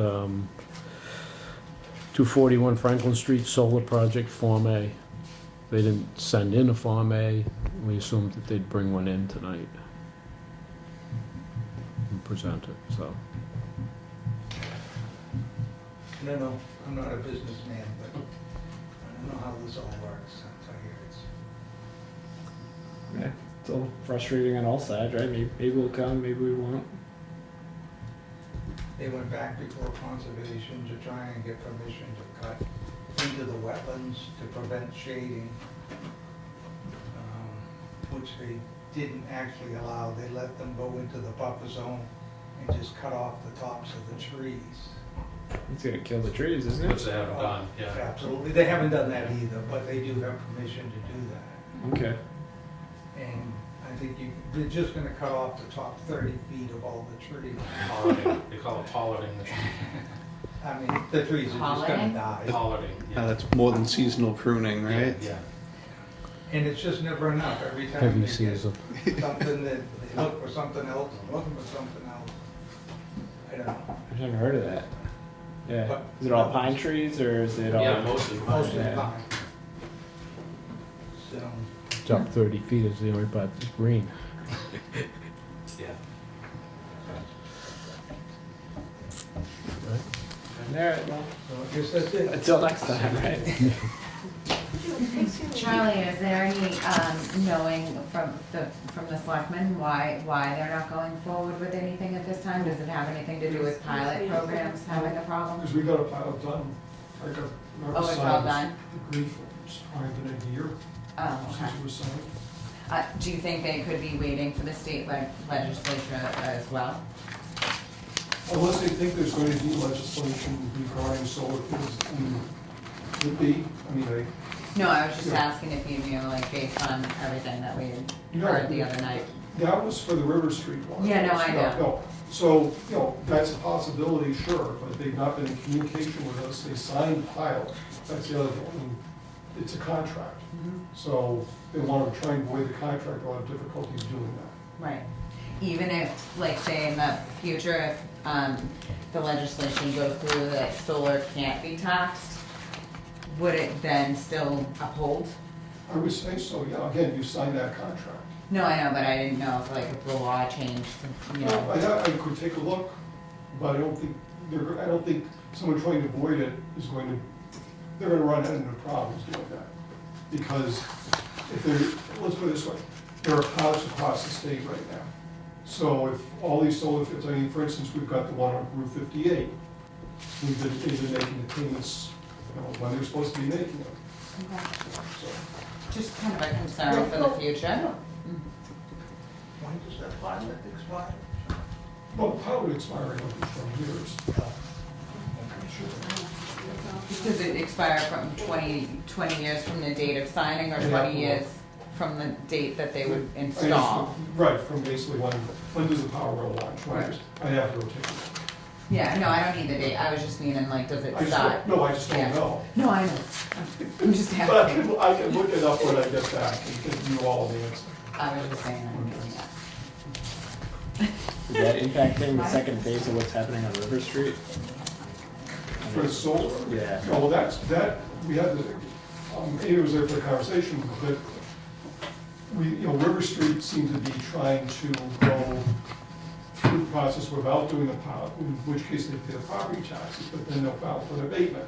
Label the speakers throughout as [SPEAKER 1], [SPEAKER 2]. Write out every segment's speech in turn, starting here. [SPEAKER 1] um, 241 Franklin Street Solar Project Form A. They didn't send in a Form A. We assumed that they'd bring one in tonight and present it, so.
[SPEAKER 2] I don't know, I'm not a businessman, but I don't know how this all works, I'm sorry, it's,
[SPEAKER 3] Yeah, it's a little frustrating on all sides, right? Maybe, maybe we'll come, maybe we won't.
[SPEAKER 2] they went back before conservation to try and get permission to cut into the wetlands to prevent shading, um, which they didn't actually allow, they let them go into the buffer zone and just cut off the tops of the trees.
[SPEAKER 3] It's gonna kill the trees, isn't
[SPEAKER 4] Which
[SPEAKER 3] it?
[SPEAKER 4] they haven't done, yeah.
[SPEAKER 2] Absolutely, they haven't done that either, but they do have permission to do that.
[SPEAKER 3] Okay.
[SPEAKER 2] And I think you, they're just gonna cut off the top thirty feet of all the trees.
[SPEAKER 4] Pollarding, they call it pollarding, the tree-
[SPEAKER 2] I mean, the trees are just gonna
[SPEAKER 5] Holiday?
[SPEAKER 2] die.
[SPEAKER 4] pollarding,
[SPEAKER 6] Uh,
[SPEAKER 4] yeah.
[SPEAKER 6] that's more than seasonal pruning, right?
[SPEAKER 4] Yeah,
[SPEAKER 2] And it's just never enough. Every time
[SPEAKER 1] Heavy
[SPEAKER 2] they get
[SPEAKER 1] season.
[SPEAKER 2] something that, they look for something else, and looking for something else. I don't know.
[SPEAKER 3] I've never heard of that. Yeah.
[SPEAKER 2] But-
[SPEAKER 3] Is it all pine trees or is it all?
[SPEAKER 4] yeah, most of
[SPEAKER 2] Most of the
[SPEAKER 3] Yeah.
[SPEAKER 2] time. So,
[SPEAKER 1] Top 30 feet is the only part that's green.
[SPEAKER 4] yeah.
[SPEAKER 3] All right, well,
[SPEAKER 2] so I guess that's it.
[SPEAKER 3] until next time, right?
[SPEAKER 5] Charlie, is there any, um, knowing from the, from the selectmen why, why they're not going forward with anything at this time? Does it have anything to do with pilot programs having a problem?
[SPEAKER 7] Because we got a pile done, I got.
[SPEAKER 5] Oh, it's all done?
[SPEAKER 7] The green forms, probably been a year
[SPEAKER 5] Oh, okay.
[SPEAKER 7] since it was signed.
[SPEAKER 5] Uh, do you think they could be waiting for the state leg- legislature as well?
[SPEAKER 7] Unless they think there's going to be legislation regarding solar fields, I mean, would be, I mean, I,
[SPEAKER 5] No, I was just
[SPEAKER 7] Yeah.
[SPEAKER 5] asking if you knew, like, based on everything that we had
[SPEAKER 7] No.
[SPEAKER 5] heard the other night.
[SPEAKER 7] That was for the River Street one.
[SPEAKER 5] Yeah, no, I know.
[SPEAKER 7] no. So, you know, that's a possibility, sure, but they've not been in communication with us, they signed pile, that's the other thing, I mean, it's a contract.
[SPEAKER 5] Mm-hmm.
[SPEAKER 7] So they want to try and void the contract, they'll have difficulties doing that.
[SPEAKER 5] Right. Even if, like, say in the future, if, um, the legislation goes through that solar can't be taxed, would it then still uphold?
[SPEAKER 7] I would say so, yeah, again, you signed that contract.
[SPEAKER 5] No, I know, but I didn't know if, like, if the law changed, you
[SPEAKER 7] I,
[SPEAKER 5] know.
[SPEAKER 7] I could take a look, but I don't think, they're, I don't think someone trying to avoid it is going to, they're gonna run into problems doing that. Because if they're, let's put it this way, there are pilots across the state right now. So if all these solar fields, I mean, for instance, we've got the one on Route fifty-eight. We've been, they've been making the payments, you know, when they're supposed to be making them,
[SPEAKER 5] Okay.
[SPEAKER 7] so.
[SPEAKER 5] Just kind of a concern for the future.
[SPEAKER 2] When does that pilot expire?
[SPEAKER 7] Well, pilot expiring over twenty years.
[SPEAKER 5] Does it expire from 20 20 years from the date of signing or
[SPEAKER 7] Yeah.
[SPEAKER 5] twenty years from the date that they would
[SPEAKER 7] I just-
[SPEAKER 5] install?
[SPEAKER 7] Right, from basically when, when does the power roll launch, when
[SPEAKER 5] Right.
[SPEAKER 7] is, I have to rotate. it.
[SPEAKER 5] Yeah, no, I don't need the date, I was just meaning like, does it
[SPEAKER 7] I just
[SPEAKER 5] stop?
[SPEAKER 7] don't- No, I just
[SPEAKER 5] Yeah.
[SPEAKER 7] don't know.
[SPEAKER 5] No, I know. I'm just
[SPEAKER 7] But I
[SPEAKER 5] asking.
[SPEAKER 7] can, I can look it up when I get back and give you all the answer.
[SPEAKER 5] I was just saying, I'm doing that.
[SPEAKER 3] Is that impacting the second phase of what's happening on River Street?
[SPEAKER 7] For the solar?
[SPEAKER 3] Yeah.
[SPEAKER 7] No, well, that's, that, we had, the- um, it was there for the conversation, but we, you know, River Street seemed to be trying to go through the process without doing the pilot, in which case they pay the property taxes, but then they'll file for an abatement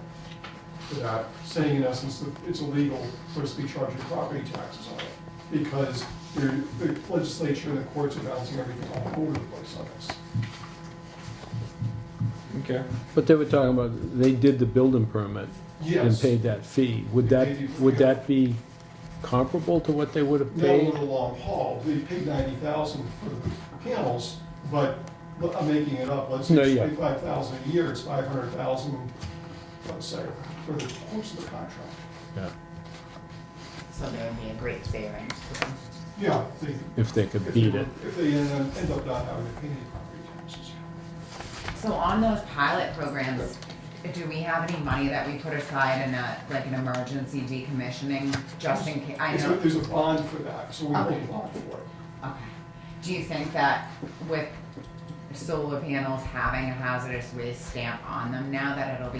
[SPEAKER 7] for that, saying in essence that it's illegal for us to be charging property taxes on it, because the the legislature and the courts are balancing everything all over the place on this.
[SPEAKER 3] Okay.
[SPEAKER 1] But they were talking about, they did the building permit and
[SPEAKER 7] Yes,
[SPEAKER 1] paid that fee. Would
[SPEAKER 7] They paid you
[SPEAKER 1] that,
[SPEAKER 7] for
[SPEAKER 1] would
[SPEAKER 7] the-
[SPEAKER 1] that be comparable to what they would have
[SPEAKER 7] not over
[SPEAKER 1] paid?
[SPEAKER 7] the long haul, they paid ninety thousand for the panels, but but I'm making it up, let's
[SPEAKER 1] No,
[SPEAKER 7] say
[SPEAKER 1] yeah.
[SPEAKER 7] twenty-five thousand a year, it's five hundred thousand, let's say, for the course of the contract.
[SPEAKER 1] Yeah,
[SPEAKER 5] So there would be a great savings.
[SPEAKER 7] Yeah, they.
[SPEAKER 1] If they could
[SPEAKER 7] if
[SPEAKER 1] beat
[SPEAKER 7] they-
[SPEAKER 1] it.
[SPEAKER 7] If they end up- end up not having to pay any property taxes.
[SPEAKER 5] So on those pilot programs, do we have any money that we put aside in a, like an emergency decommissioning, just in case? I
[SPEAKER 7] There's a-
[SPEAKER 5] know,
[SPEAKER 7] There's a bond for that, so we hold
[SPEAKER 5] Okay.
[SPEAKER 7] a bond for it.
[SPEAKER 5] okay. Do you think that with solar panels having a hazardous waste stamp on them now that it'll be